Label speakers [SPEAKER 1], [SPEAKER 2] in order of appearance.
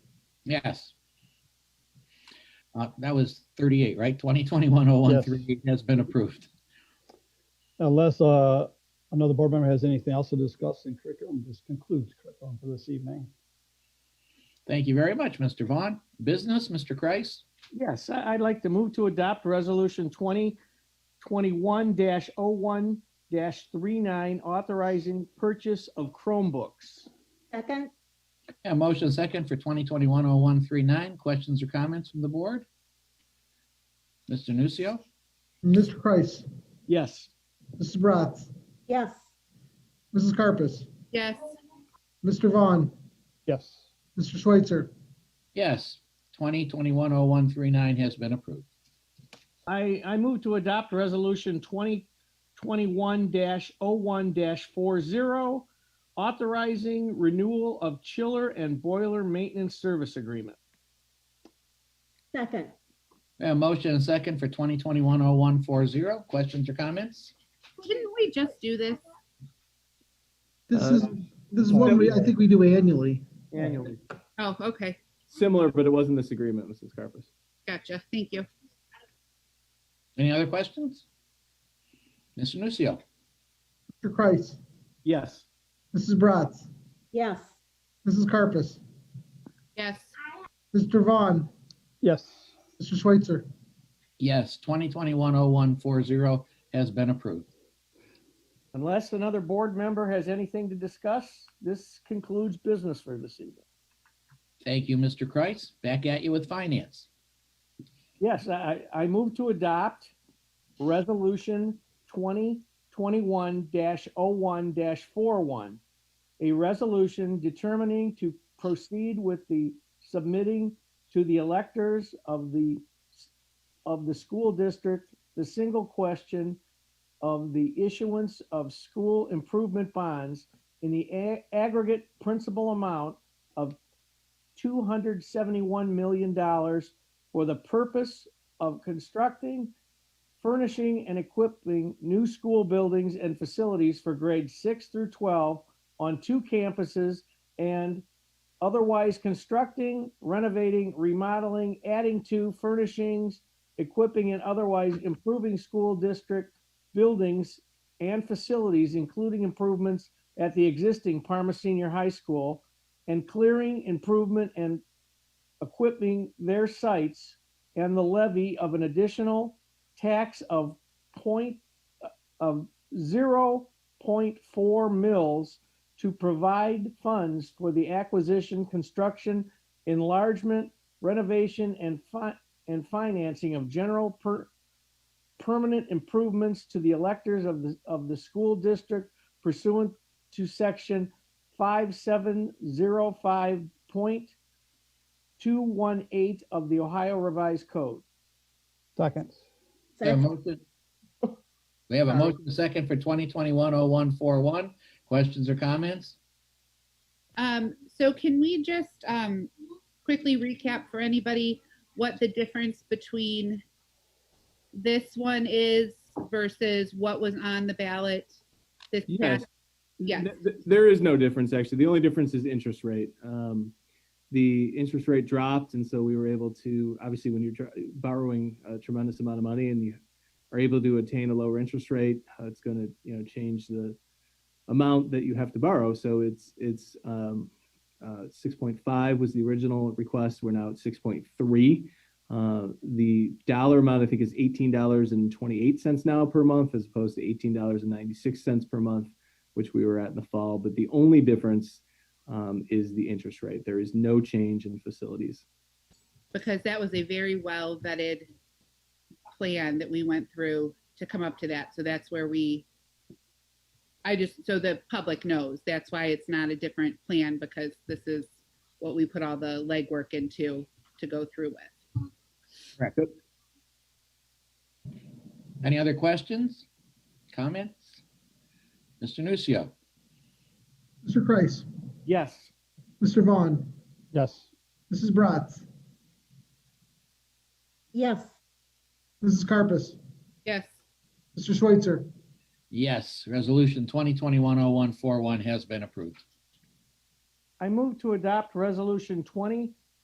[SPEAKER 1] Yes. Uh, That was 38, right? 2021-0138 has been approved.
[SPEAKER 2] Unless uh, another board member has anything else to discuss in curriculum, this concludes curriculum for this evening.
[SPEAKER 1] Thank you very much, Mr. Vaughn. Business, Mr. Kreis?
[SPEAKER 3] Yes, I- I'd like to move to adopt Resolution 2021-01-39, authorizing purchase of Chromebooks.
[SPEAKER 4] Second,
[SPEAKER 1] Yeah, motion second for 2021-0139. Questions or comments from the board? Mr. Nucio?
[SPEAKER 5] Mr. Kreis,
[SPEAKER 3] Yes.
[SPEAKER 5] Mrs. Bratz,
[SPEAKER 4] yes.
[SPEAKER 5] Mrs. Carpus,
[SPEAKER 6] yes,
[SPEAKER 5] Mr. Vaughn,
[SPEAKER 2] Yes,
[SPEAKER 5] Mr. Schweitzer,
[SPEAKER 1] Yes, 2021-0139 has been approved.
[SPEAKER 3] I, I move to adopt Resolution 2021-01-40, authorizing renewal of chiller and boiler maintenance service agreement.
[SPEAKER 4] Second,
[SPEAKER 1] Yeah, motion second for 2021-0140. Questions or comments?
[SPEAKER 6] didn't we just do this?
[SPEAKER 5] this
[SPEAKER 7] Uh,
[SPEAKER 5] is, this is one we, I think we do annually.
[SPEAKER 3] Annually.
[SPEAKER 6] Oh, okay,
[SPEAKER 7] Similar, but it wasn't this agreement, Mrs. Carpus.
[SPEAKER 6] gotcha, thank you.
[SPEAKER 1] Any other questions? Mr. Nucio?
[SPEAKER 5] Mr. Kreis,
[SPEAKER 3] Yes.
[SPEAKER 5] Mrs. Bratz,
[SPEAKER 4] yes.
[SPEAKER 5] Mrs. Carpus,
[SPEAKER 6] Yes,
[SPEAKER 5] Mr. Vaughn,
[SPEAKER 2] yes,
[SPEAKER 5] Mr. Schweitzer,
[SPEAKER 1] Yes, 2021-0140 has been approved.
[SPEAKER 3] Unless another board member has anything to discuss, this concludes business for this evening.
[SPEAKER 1] Thank you, Mr. Kreis. Back at you with finance.
[SPEAKER 3] Yes, I, I I move to adopt Resolution 2021-01-41, a resolution determining to proceed with the submitting to the electors of the, of the school district, the single question of the issuance of school improvement bonds in the a- aggregate principal amount of $271 million for the purpose of constructing, furnishing, and equipping new school buildings and facilities for grades six through twelve on two campuses and otherwise constructing, renovating, remodeling, adding to furnishings, equipping, and otherwise improving school district buildings and facilities, including improvements at the existing Parma Senior High School, and clearing, improvement, and equipping their sites and the levy of an additional tax of point of zero point four mils to provide funds for the acquisition, construction, enlargement, renovation, and fi- and financing of general per- permanent improvements to the electors of the of the school district pursuant to section five seven zero five point 218 of the Ohio Revised Code.
[SPEAKER 2] second,
[SPEAKER 1] We have a
[SPEAKER 4] Second,
[SPEAKER 1] motion- we have a motion second for 2021-0141. Questions or comments?
[SPEAKER 6] um, so can we just, um, quickly recap for anybody what the difference between this one is versus what was on the ballot this
[SPEAKER 7] Yes.
[SPEAKER 6] past? Yes,
[SPEAKER 7] Th- th- There is no difference, actually. The only difference is interest rate. Um, The interest rate dropped, and so we were able to, obviously, when you're tr- borrowing a tremendous amount of money and you are able to attain a lower interest rate, uh, it's going to, you know, change the amount that you have to borrow. So it's, it's um, uh, 6.5 was the original request. We're now at 6.3. Uh, The dollar amount, I think, is $18.28 now per month as opposed to $18.96 per month which we were at in the fall. But the only difference um, is the interest rate. There is no change in facilities.
[SPEAKER 6] because that was a very well vetted plan that we went through to come up to that, so that's where we, I just, so the public knows, that's why it's not a different plan, because this is what we put all the legwork into to go through with.
[SPEAKER 1] Any other questions? Comments? Mr. Nucio?
[SPEAKER 5] Mr. Kreis,
[SPEAKER 3] Yes.
[SPEAKER 5] Mr. Vaughn,
[SPEAKER 2] yes.
[SPEAKER 5] Mrs. Bratz,
[SPEAKER 4] yes.
[SPEAKER 5] Mrs. Carpus,
[SPEAKER 6] Yes,
[SPEAKER 5] Mr. Schweitzer,
[SPEAKER 1] Yes, resolution 2021-0141 has been approved.
[SPEAKER 3] I move to adopt Resolution 20